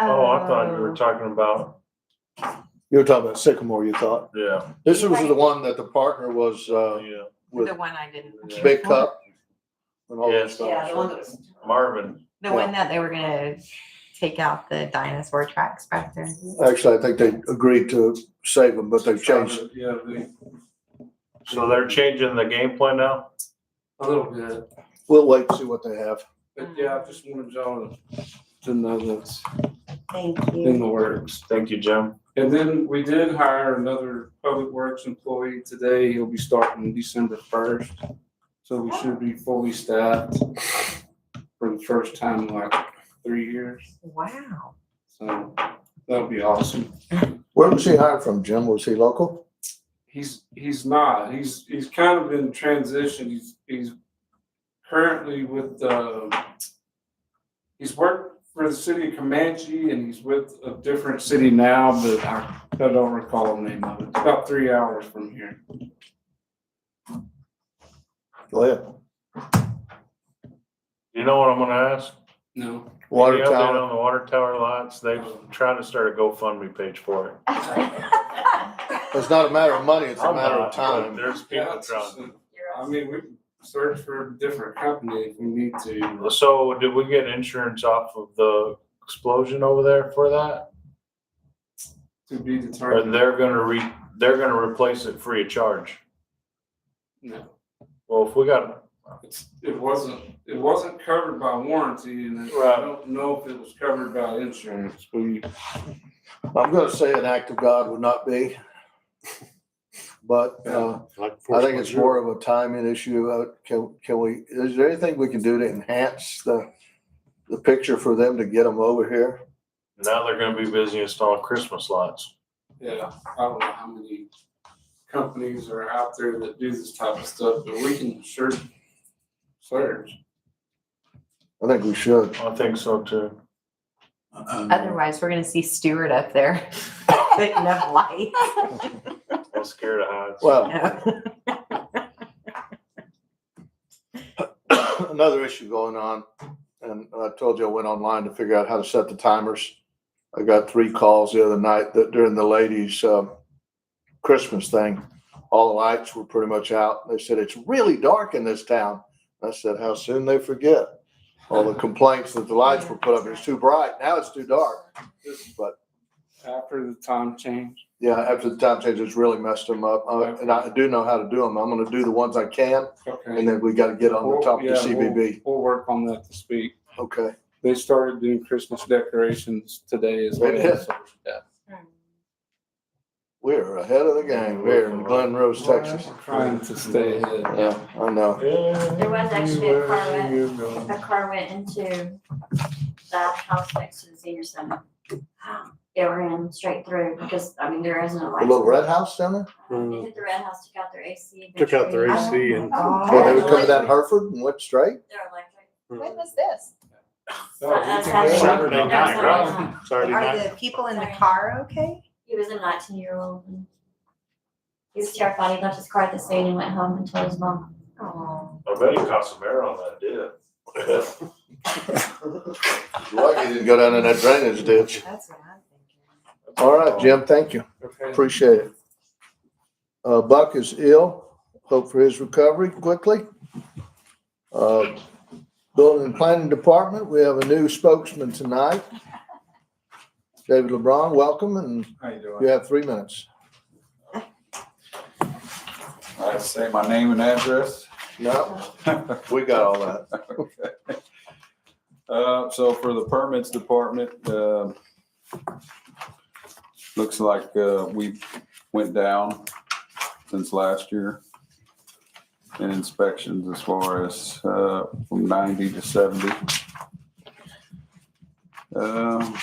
Oh, I thought you were talking about, You were talking about Sycamore, you thought. yeah, This was the one that the partner was, uh, yeah, with The one I didn't. Yeah. Big Cup and all that Yes. Yeah, the stuff. one that was, Marvin, the one that they were gonna take out the dinosaur tracks back there. Actually, I think they agreed to save them, but they've changed it. Yeah, they, so they're changing the game plan now? a little bit, We'll wait and see what they have. but yeah, I just wanted y'all to know that's Thank in Mm. you. the works. Thank you, Jim. And then we did hire another public works employee today. He'll be starting December first. So we should be fully staffed for the first time in like three years. Wow. So that'll be awesome. Where was he hired from, Jim? Was he local? He's, he's not, he's, he's kind of in transition. He's, he's currently with, uh, he's worked for the city of Comanche and he's with a different city now, but I, I don't recall the name of it. It's About three hours from here. Go ahead. You know what I'm gonna ask? No. Water Any update tower. On the water tower lots, they've tried to start a GoFundMe page for it. It's not a matter of money, it's a I'm matter not, of but time. There's Yeah, people it's just trying. a- I mean, we can search for a different company if we need to. So did we get insurance off of the explosion over there for that? To be Or determined. they're gonna re, they're gonna replace it free of charge? No. Well, if we got, It's, it wasn't, it wasn't covered by warranty and I Right. don't know if it was covered by insurance. We, I'm gonna say an act of God would not be. But, uh, I think it's more of a timing issue. Uh, Can, can we, is there anything we can do to enhance the, the picture for them to get them over here? now they're gonna be busy installing Christmas lights. yeah, I don't know how many companies are out there that do this type of stuff, but we can sure search. I think we should. I think so too. Um, Otherwise, we're gonna see Stewart up there. Putting up lights. I'm scared of heights. Well, another issue going on, and I told you I went online to figure out how to set the timers. I got three calls the other night that during the ladies' um, Christmas thing, all the lights were pretty much out. They said it's really dark in this town. I said, how soon they forget all the complaints that the lights were put up. It's too bright. Now it's too dark. But After the time change. yeah, after the time change, it's really messed them up. Uh, and I do know how to do them. I'm going to do the ones I can, and Okay. then we got to get on the top of the Yeah, we'll- CBB. We'll work on that this week. Okay. They started doing Christmas decorations today as well. They did? so, Yeah. We're ahead of the game here in Glen Rose, Texas. Trying to stay ahead. Yeah, I know. There was actually a car wreck. A car went into the house next to the senior center. It ran straight through because, I mean, there isn't a The light. little red house down there? It hit the red house, took out their AC. Took out their tree, AC and Well, they Oh, were coming down Hereford and went straight? Their electric. When was this? Oh, we That's can- how they- Saturday that's night, how right? they hung. Saturday Are night. the people in the car okay? He was a nineteen year old. and He was terrified. He left his car at the scene and went home and told his mom. Oh, I bet he caught some air on that dip. Lucky didn't go down in that drainage ditch. that's what I'm thinking. All right, Jim, thank you. Okay. Appreciate it. Uh, Buck is ill. Hope for his recovery quickly. Uh, Building and Planning Department, we have a new spokesman tonight. David LeBron, welcome, and How you doing? you have three minutes. I say my name and address. No, we got all that. Uh, so for the permits department, uh, looks like, uh, we went down since last year in inspections as far as, uh, from ninety to seventy. Um,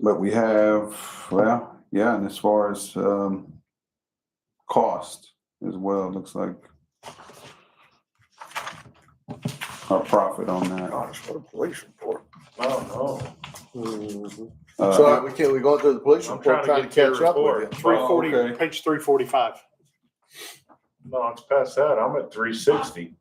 But we have, well, yeah, and as far as, um, cost as well, it looks like our profit on that. Gosh, what a police report. Oh, Uh, Sorry, we can't, we're going through the police no. I'm trying to report, trying get to to your catch up with report. you. Three Oh, okay. forty, page three forty-five. No, it's past that. I'm at three sixty.